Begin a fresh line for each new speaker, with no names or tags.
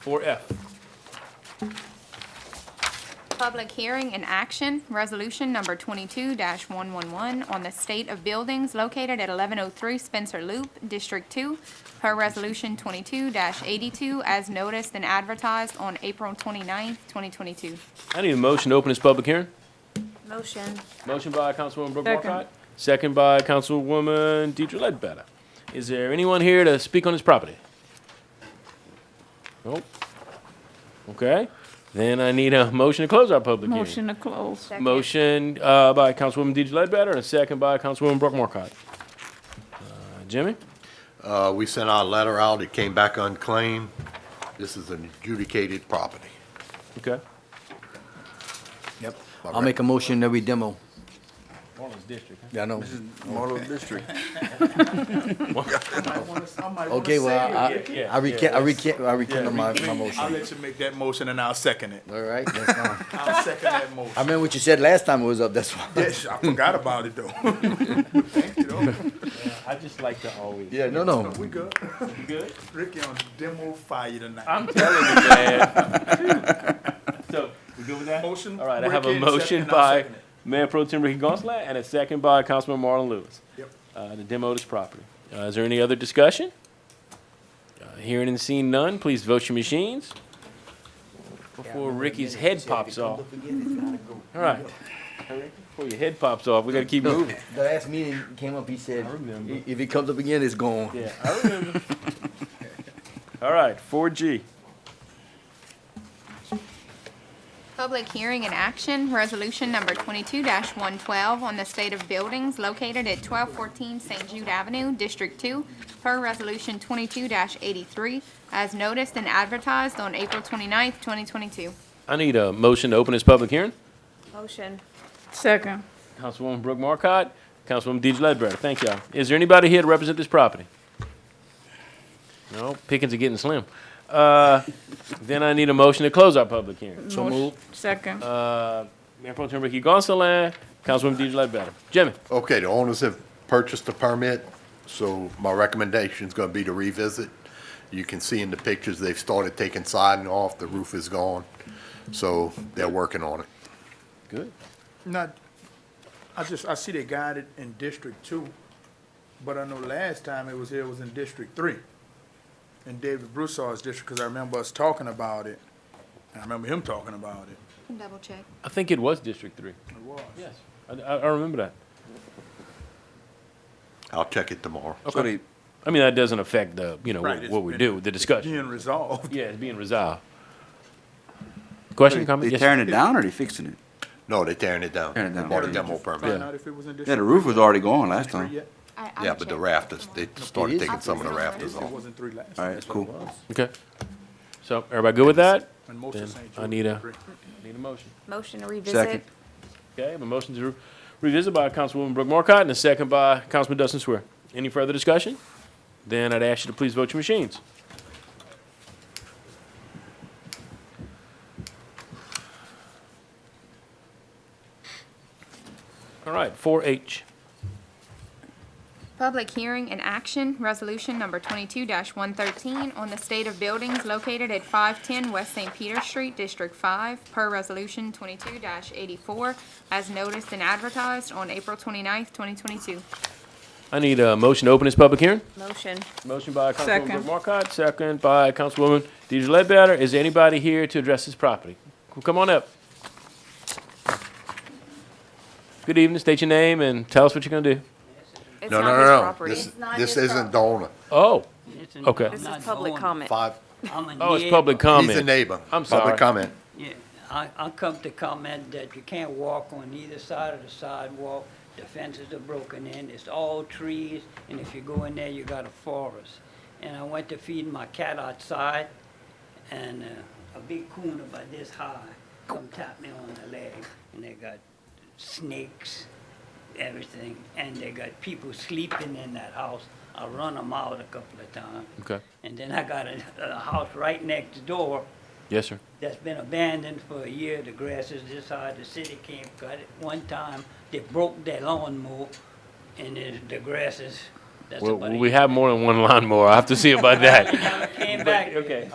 Four F,
Public hearing and action, resolution number twenty-two one one one on the state of buildings located at eleven oh three Spencer Loop, District Two, per resolution twenty-two eighty-two as noticed and advertised on April 29th, twenty-two.
I need a motion to open this public hearing.
Motion.
Motion by Councilwoman Brooke
Second.
Markcott, second by Councilwoman Deidre Ledbetter. Is there anyone here to speak on this property? Nope. Okay, then I need a motion to close our public hearing.
Motion to close.
Motion uh, by Councilwoman Deidre Ledbetter and a second by Councilwoman Brooke Markcott. Uh, Jimmy?
Uh, we sent out a letter out, it came back unclaimed. This is an adjudicated property.
Okay.
Yep.
All
I'll make a motion that we demo.
Marlins District.
Yeah, I know.
Marlow District.
Okay, well, I, I recant, I recant, I recant my, my
I'll
motion.
let you make that motion and I'll second it.
All right, that's fine.
I'll second that
I
motion.
remember what you said last time it was up, that's why.
Yes, I forgot about it though. Thank you though.
I just like to always.
Yeah, no, no.
We good.
Good.
Ricky on demo fire tonight.
I'm telling you, man. so, we good with that?
Motion,
All right, I have a
Ricky,
motion
second, I'll
by
second it.
Mayor Pro Tem Ricky Gonsalas and a second by Councilman Marlon Lewis.
Yep.
Uh, to demo this property. Uh, is there any other discussion? Uh, hearing and seeing none, please vote your machines before Ricky's head pops off. All right. Before your head pops off, we got to keep
No,
moving.
The last meeting came up, he said,
I remember.
"I- if it comes up again, it's gone.
Yeah, I remember. All right, four G.
Public hearing and action, resolution number twenty-two one twelve on the state of buildings located at twelve fourteen St. Jude Avenue, District Two, per resolution twenty-two eighty-three as noticed and advertised on April 29th, twenty-two.
I need a motion to open this public hearing.
Motion.
Second.
Councilwoman Brooke Marcotte, Councilwoman Deidre Ledbetter, thank y'all. Is there anybody here to represent this property? No, pickings are getting slim. Uh, Then I need a motion to close our public hearing.
So Second.
Uh, Mayor Pro Tem Ricky Gonsalas, Councilwoman Deidre Ledbetter. Jimmy,
Okay, the owners have purchased the permit, so my recommendation is gonna be to revisit. You can see in the pictures, they've started taking siding off, the roof is gone, so they're working on it.
good.
Not, I just, I see they got it in District Two, but I know last time it was here, it was in District Three. In David Broussard's district, because I remember us talking about it, and I remember him talking about it.
Double check.
I think it was District Three.
It was.
Yes. I, I I remember that.
I'll check it tomorrow.
So they-
I mean, that doesn't affect the, you know,
Right,
what
it's
what we
been-
do, the discussion.
Being resolved.
Yeah, it's being resolved. Question, comment?
They
Yes.
tearing it down or they fixing it?
No, they're tearing it down.
Tearing it down.
Bought a
Did
demo
you Find
permit.
out if it was in
Yeah, the
District
roof was already gone last
Three
time.
yet?
Yeah, but the rafters, they started
is.
taking some of the rafters
It
off.
wasn't three last.
All right, cool.
Okay. So, everybody good with that?
And most of
Then
St.
I
Jude
need a-
agree.
Need a motion.
Motion to
Second.
revisit.
Okay, I have a motion to revisit by Councilwoman Brooke Markcott and a second by Councilman Dustin Swear. Any further discussion? Then I'd ask you to please vote your machines. All right, four H.
Public hearing and action, resolution number twenty-two one thirteen on the state of buildings located at five ten West St. Peter Street, District Five, per resolution twenty-two eighty-four, as noticed and advertised on April 29th, twenty-two.
I need a motion to open this public hearing.
Motion.
Motion by Councilwoman
Second.
Brooke Markcott, second by Councilwoman Deidre Ledbetter. Is there anybody here to address this property? Come on up. Good evening, state your name and tell us what you're gonna do.
It's
No,
not
no,
his
no, no,
property.
this, this isn't the owner,
Oh, okay.
This is public comment.
five,
Oh, it's public comment.
he's a neighbor.
I'm sorry.
Public comment.
Yeah, I, I come to comment that you can't walk on either side of the sidewalk, the fences are broken in, it's all trees, and if you go in there, you got a forest. And I went to feed my cat outside, and uh, a big coon about this high come tap me on the leg, and they got snakes, everything, and they got people sleeping in that house. I run them out a couple of times.
Okay.
And then I got a, a house right next door,
Yes, sir.
that's been abandoned for a year. The grass is this high. The city came, cut it. One time, they broke that lawnmower, and it, the grass is, that's
Well,
about it.
we have more than one lawnmower. I have to see about that.
Came back.
Okay,